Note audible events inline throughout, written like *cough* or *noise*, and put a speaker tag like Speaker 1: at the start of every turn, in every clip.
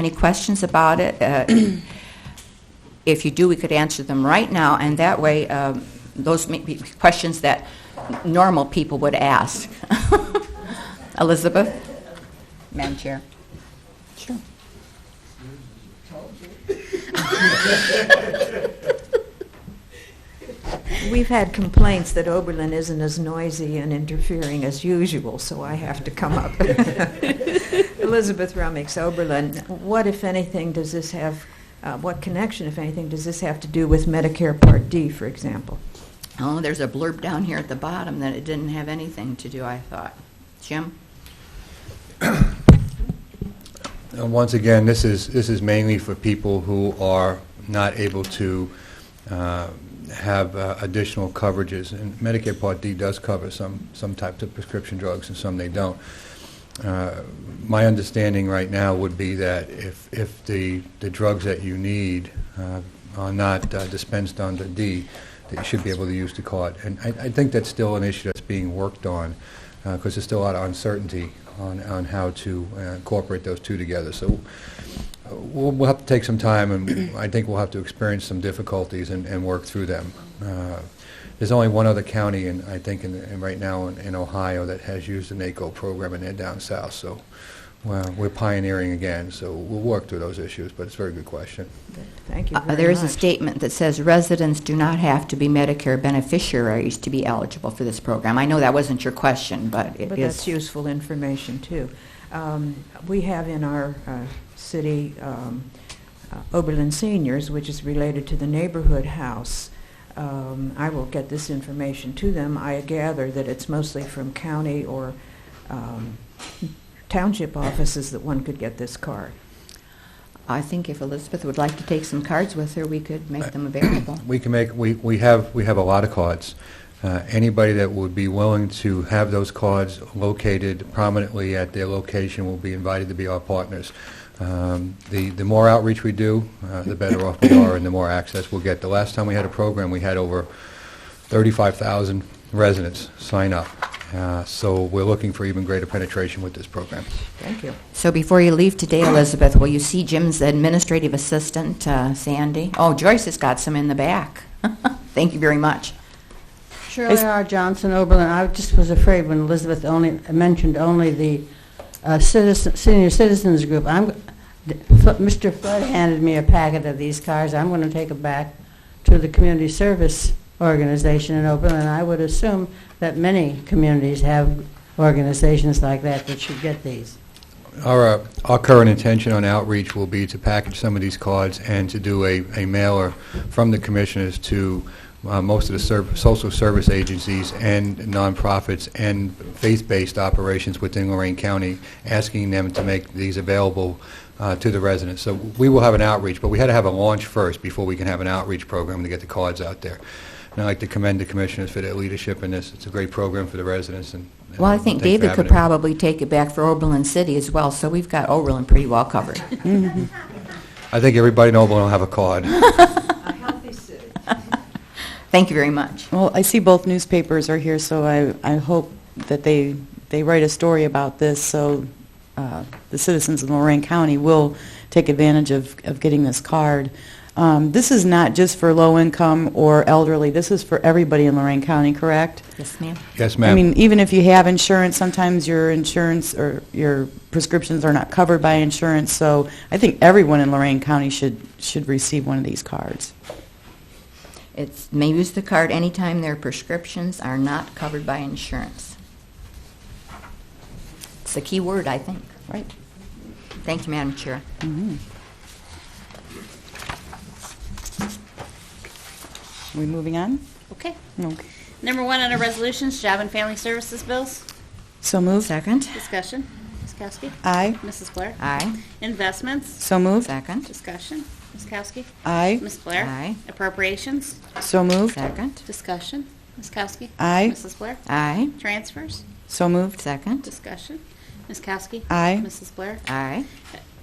Speaker 1: any questions about it. Uh, If you do, we could answer them right now, and that way, um, those may be questions that normal people would ask. *laughs* Elizabeth? Madam Chair? Sure.
Speaker 2: We've had complaints that Oberlin isn't as noisy and interfering as usual, so I have to come up. Elizabeth Rummix, Oberlin, what, if anything, does this have, uh, what connection, if anything, does this have to do with Medicare Part D, for example?
Speaker 1: Oh, there's a blurb down here at the bottom that it didn't have anything to do, I thought. Jim?
Speaker 3: Uh, Once again, this is, this is mainly for people who are not able to uh, have uh, additional coverages. And Medicare Part D does cover some, some types of prescription drugs and some they don't. Uh, My understanding right now would be that if, if the, the drugs that you need uh, are not uh, dispensed under D, that you should be able to use the card. And I, I think that's still an issue that's being worked on, because there's still a lot of uncertainty on, on how to uh, incorporate those two together. So uh, we'll, we'll have to take some time, and I think we'll have to experience some difficulties and, and work through them. Uh, There's only one other county, and I think, in, in right now in, in Ohio, that has used the NACO program, and they're down south, so, well, we're pioneering again, so we'll work through those issues, but it's a very good question.
Speaker 2: Thank you
Speaker 1: Uh,
Speaker 2: very much.
Speaker 1: There is a statement that says residents do not have to be Medicare beneficiaries to be eligible for this program. I know that wasn't your question, but it is.
Speaker 2: But that's useful information, too. Um, We have in our uh, city um, uh, Oberlin Seniors, which is related to the neighborhood house. Um, I will get this information to them. I gather that it's mostly from county or um, township offices that one could get this card.
Speaker 1: I think if Elizabeth would like to take some cards with her, we could make them available.
Speaker 3: We can make, we, we have, we have a lot of cards. Uh, Anybody that would be willing to have those cards located prominently at their location will be invited to be our partners. Um, The, the more outreach we do, uh, the better off we are and the more access we'll get. The last time we had a program, we had over 35,000 residents sign up. Uh, So we're looking for even greater penetration with this program.
Speaker 2: Thank you.
Speaker 1: So before you leave today, Elizabeth, will you see Jim's administrative assistant, uh, Sandy? Oh, Joyce has got some in the back. *laughs* Thank you very much.
Speaker 4: Shirley R. Johnson, Oberlin. I just was afraid when Elizabeth only, mentioned only the uh, citizen, senior citizens group. I'm, th- F- Mr. Flood handed me a packet of these cards. I'm going to take it back to the community service organization in Oberlin. I would assume that many communities have organizations like that that should get these.
Speaker 3: Our, uh, our current intention on outreach will be to package some of these cards and to do a, a mailer from the commissioners to uh, most of the serv- social service agencies and nonprofits and faith-based operations within Lorraine County, asking them to make these available uh, to the residents. So we will have an outreach, but we had to have a launch first before we can have an outreach program to get the cards out there. And I'd like to commend the commissioners for their leadership in this. It's a great program for the residents and. and
Speaker 1: Well, I think
Speaker 3: thanks for
Speaker 1: David
Speaker 3: having
Speaker 1: could
Speaker 3: it.
Speaker 1: probably take it back for Oberlin City as well, so we've got Oberlin pretty well
Speaker 3: *laughs*
Speaker 1: covered.
Speaker 3: I think everybody in Oberlin will have a card.
Speaker 1: Thank you very much.
Speaker 5: Well, I see both newspapers are here, so I, I hope that they, they write a story about this, so uh, the citizens of Lorraine County will take advantage of, of getting this card. Um, This is not just for low-income or elderly, this is for everybody in Lorraine County, correct?
Speaker 1: Yes, ma'am?
Speaker 3: Yes,
Speaker 5: I mean,
Speaker 3: ma'am.
Speaker 5: even if you have insurance, sometimes your insurance or your prescriptions are not covered by insurance, so I think everyone in Lorraine County should, should receive one of these cards.
Speaker 1: It's, may use the card anytime their prescriptions are not covered by insurance. It's the key word, I think.
Speaker 5: Right.
Speaker 1: Thank you, Madam Chair.
Speaker 5: Are we moving on?
Speaker 6: Okay.
Speaker 5: Okay.
Speaker 6: Number one on our resolutions, job and family services bills.
Speaker 5: So moved.
Speaker 1: Second?
Speaker 6: Discussion. Ms. Kowski.
Speaker 5: Aye.
Speaker 6: Mrs. Blair.
Speaker 1: Aye.
Speaker 6: Investments.
Speaker 5: So moved.
Speaker 1: Second?
Speaker 6: Discussion. Ms. Kowski.
Speaker 5: Aye.
Speaker 6: Ms. Blair.
Speaker 1: Aye.
Speaker 6: Appropriations.
Speaker 5: So moved.
Speaker 1: Second?
Speaker 6: Discussion. Ms. Kowski.
Speaker 5: Aye.
Speaker 6: Mrs. Blair.
Speaker 1: Aye.
Speaker 6: Transfers.
Speaker 5: So moved.
Speaker 1: Second?
Speaker 6: Discussion. Ms. Kowski.
Speaker 5: Aye.
Speaker 6: Mrs. Blair.
Speaker 1: Aye.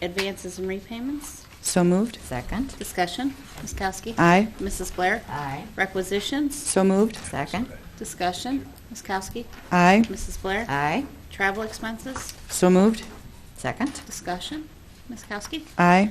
Speaker 6: Advances and repayments.
Speaker 5: So moved.
Speaker 1: Second?
Speaker 6: Discussion. Ms. Kowski.
Speaker 5: Aye.
Speaker 6: Mrs. Blair.
Speaker 1: Aye.
Speaker 6: Requisitions.
Speaker 5: So moved.
Speaker 1: Second?
Speaker 6: Discussion. Ms. Kowski.
Speaker 5: Aye.
Speaker 6: Mrs. Blair.
Speaker 1: Aye.
Speaker 6: Travel expenses.
Speaker 5: So moved.
Speaker 1: Second?
Speaker 6: Discussion.
Speaker 7: Ms. Kowski?
Speaker 6: Aye.